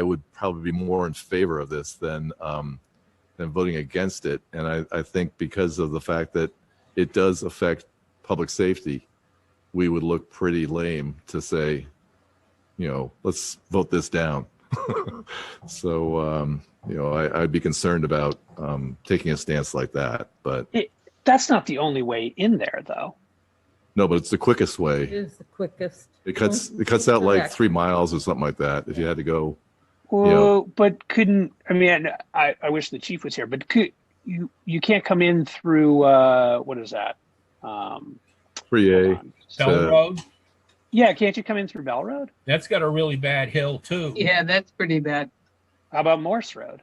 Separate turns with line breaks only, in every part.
I would probably be more in favor of this than um, than voting against it. And I, I think because of the fact that it does affect public safety, we would look pretty lame to say, you know, let's vote this down. so um, you know, I, I'd be concerned about um, taking a stance like that. But
That's not the only way in there, though.
no, but it's the quickest
It
way.
is the quickest.
It cuts it cuts out like
Correct.
three miles or something like that. If you had to go,
Well, but couldn't I mean I, I wish the chief was here, but could you you can't come in through uh what is that? Um
three
hold
A.
on.
So-
Bell Road,
yeah, can't you come in through Bell Road?
that's got a really bad hill too.
Yeah, that's pretty bad.
How about Morse Road?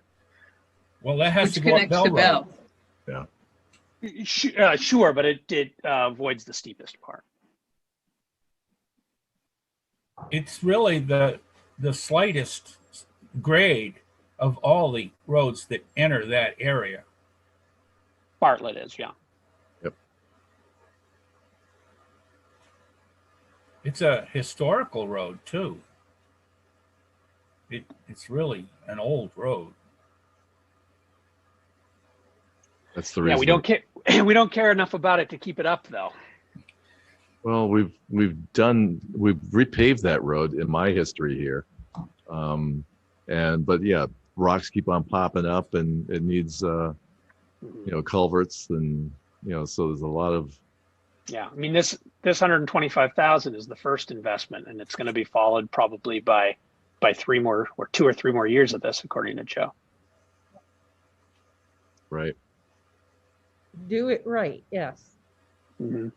Well, that has
Which
to go up
connects
Bell
to
Road.
Bell.
Sh- uh, sure, but it it uh, avoids the steepest part.
It's really the, the slightest grade of all the roads that enter that area.
Bartlett is, yeah.
It's a historical road too. It, it's really an old road.
That's the reason.
Yeah, we don't care. We don't care enough about it to keep it up, though.
Well, we've we've done we've repaved that road in my history here, um, and but yeah, rocks keep on popping up, and it needs uh,
Mm-hmm.
you know culverts, and you know so there's a lot of
Yeah, I mean this this hundred and twenty five thousand is the first investment, and it's going to be followed probably by by three more or two or three more years of this, according to Joe.
right.
Do it right, yes.
Mhm.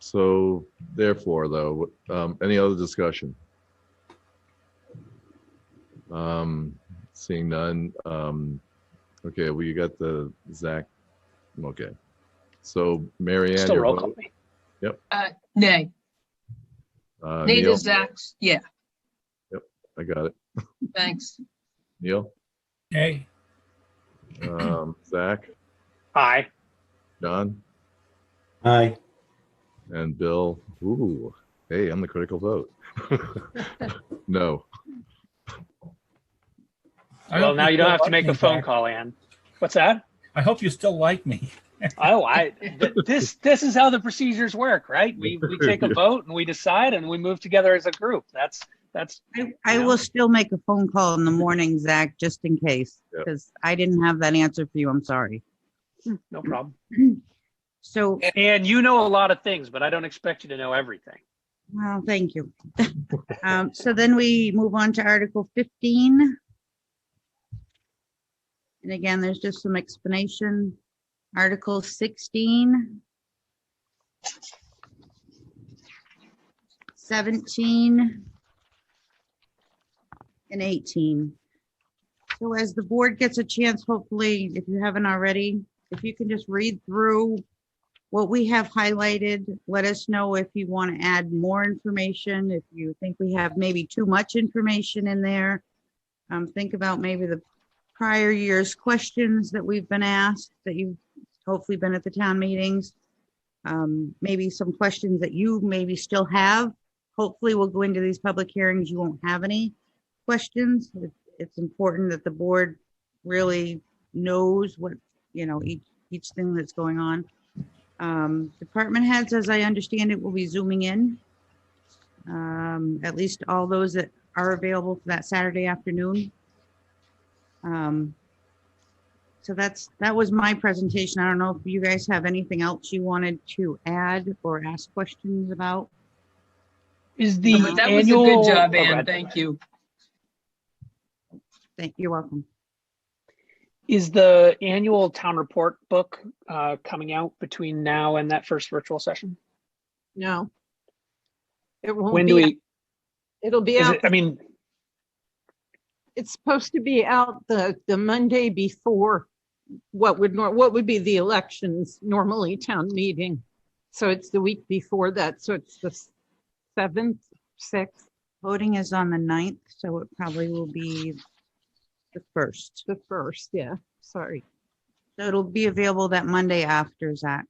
So therefore, though, um, any other discussion? Um, seeing none, um, okay, well, you got the Zach, okay. So Mary Ann,
Still
your
roll call
vote,
me.
Nay,
uh,
nay to
Neil,
Zach's. Yeah,
I got it,
thanks.
Neil,
Hey,
um, Zach,
Aye.
Don,
Aye.
and Bill. Ooh, hey, I'm the critical vote. No,
I
Well,
hope
now you don't
still
have to
like
make
me,
a phone
Zach.
call, Ann. What's that?
I hope you still like me.
Oh, I th- this this is how the procedures work, right? We we take a vote and we decide and we move together as a group. That's that's
I, I will still make a phone call in the morning, Zach, just in case,
Yep.
because I didn't have that answer for you. I'm sorry.
no problem.
So,
And you know a lot of things, but I don't expect you to know everything.
well, thank you. Um, so then we move on to Article fifteen. And again, there's just some explanation. Article sixteen. Seventeen. and 18. So as the board gets a chance, hopefully, if you haven't already, if you can just read through what we have highlighted, let us know if you want to add more information, if you think we have maybe too much information in there. Um, Think about maybe the prior year's questions that we've been asked, that you've hopefully been at the town meetings. Um, Maybe some questions that you maybe still have. Hopefully, we'll go into these public hearings, you won't have any questions. It- It's important that the board really knows what, you know, each, each thing that's going on. Um, Department heads, as I understand it, will be zooming in. Um, At least all those that are available for that Saturday afternoon. Um, So that's, that was my presentation. I don't know if you guys have anything else you wanted to add or ask questions about.
Is the
But That was a
annual-
good job,
Oh, go
Ann.
ahead.
Thank you.
Thank, you're welcome.
Is the annual town report book uh, coming out between now and that first virtual session?
No. It won't
When do
be,
we,
it'll be
is
out,
it, I mean,
it's supposed to be out the, the Monday before what would, nor- what would be the elections, normally town meeting. So it's the week before that, so it's the s- seventh, sixth,
Voting is on the 9th, so it probably will be the first.
the first, yeah, sorry.
So it'll be available that Monday after, Zach.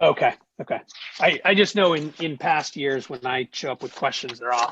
okay, okay. I, I just know in, in past years, when I show up with questions, they're all,